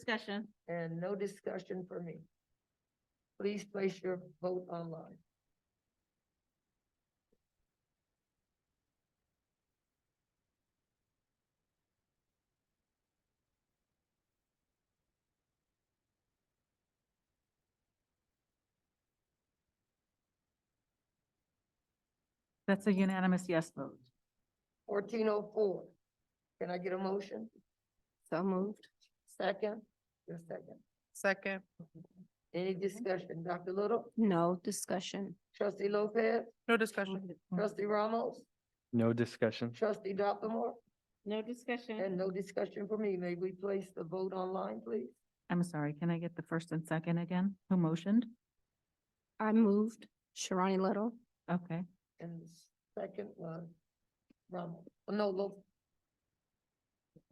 Discussion. and no discussion for me. Please place your vote online. That's a unanimous yes vote. Fourteen oh four, can I get a motion? So moved. Second? Your second. Second, Any discussion? Dr. Little, No discussion. trustee Lopez, no discussion. trustee Ramos, No discussion. trustee Dopplemore, No Hmm. discussion. and no discussion for me. May we place the vote online, please? I'm sorry, can I get the first and second again? Who motioned? I moved. Sharani Little. Okay, And the second was Ramos, Oh, no, Lo,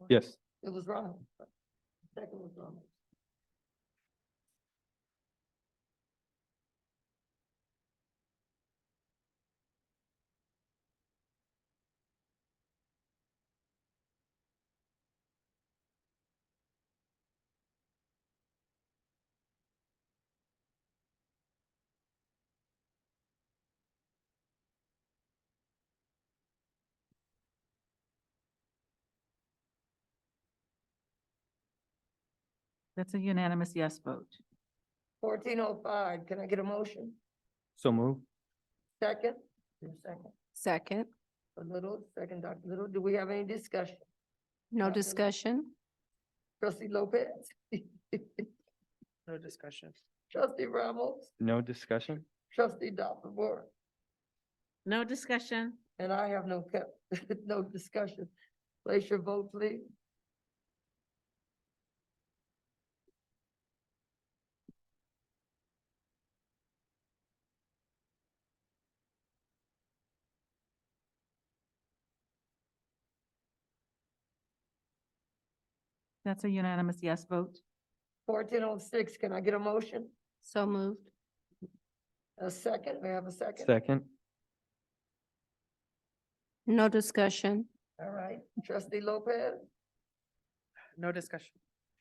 Yes. it was Ramos. Second was Ramos. that's a unanimous yes vote. Fourteen oh five, can I get a motion? So move. Second? Your second. Second. A little, second, Dr. Little, do we have any discussion? No Nothing. discussion. Trustee Lopez? No discussion. Trustee Ramos? No discussion. Trustee Dr. Moore? No discussion. And I have no, co- no discussion. Place your vote, please. That's a unanimous yes vote. Fourteen oh six, can I get a motion? So moved. A second, may I have a second? Second. No discussion. All right, trustee Lopez, No discussion.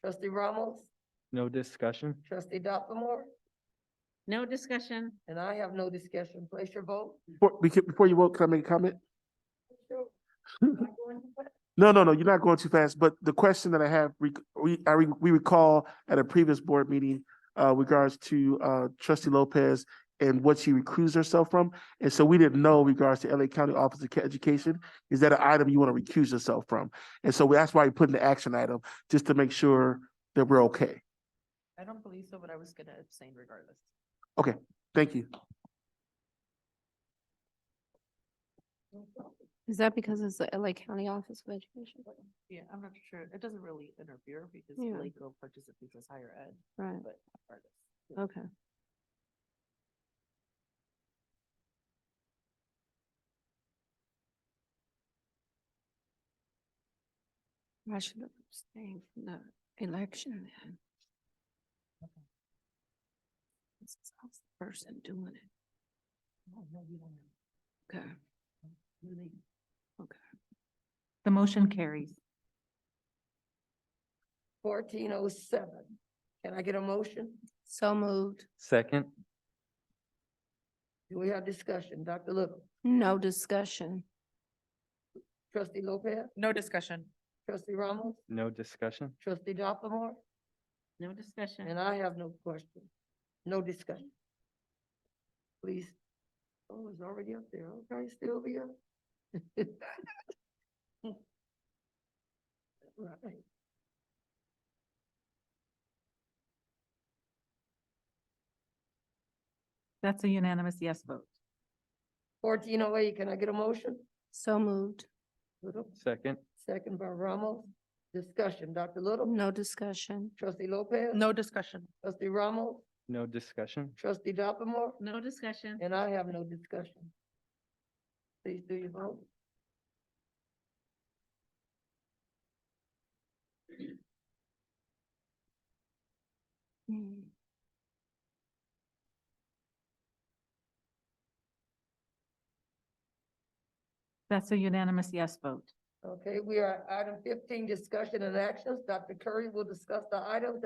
trustee Ramos, No discussion. trustee Dr. Moore, No discussion. and I have no discussion. Place your vote. Before, beca- before you vote, can I make a comment? No, no, no, you're not going too fast, but the question that I have, rec- we, I, re- we recall at a previous board meeting uh, regards to uh, trustee Lopez and what she recused herself from. And so we didn't know regards to LA County Office of Ca- Education, is that an item you want to recuse yourself from? And so that's why we put in the action item, just to make sure that we're okay. I don't believe so, but I was gonna abstain regardless. Thank you. Is that because it's the LA County Office of Education? Yeah, I'm not sure. It doesn't really interfere because Yeah. legal participates as higher ed, Right. but regardless. Okay. I should have abstained from the election then. This is I was the person doing it. Okay. Okay. The motion carries. Fourteen oh seven, can I get a motion? So moved. Second. Do we have discussion? Dr. Little, No discussion. trustee Lopez, No discussion. trustee Ramos, No discussion. trustee Dr. Moore, No discussion. And I have no question, no discussion. Please, oh, it's already up there, okay, still be up. Right. That's a unanimous yes vote. Fourteen oh eight, can I get a motion? So moved. Little, Second. second by Ramos, discussion, Dr. Little, No discussion. trustee Lopez. No discussion. Trustee Ramos, No discussion. trustee Dopplemore, No discussion. and I have no discussion. Please do your vote. Mm. That's a unanimous yes vote. Okay, we are at item fifteen, discussion and actions. Dr. Curry will discuss the items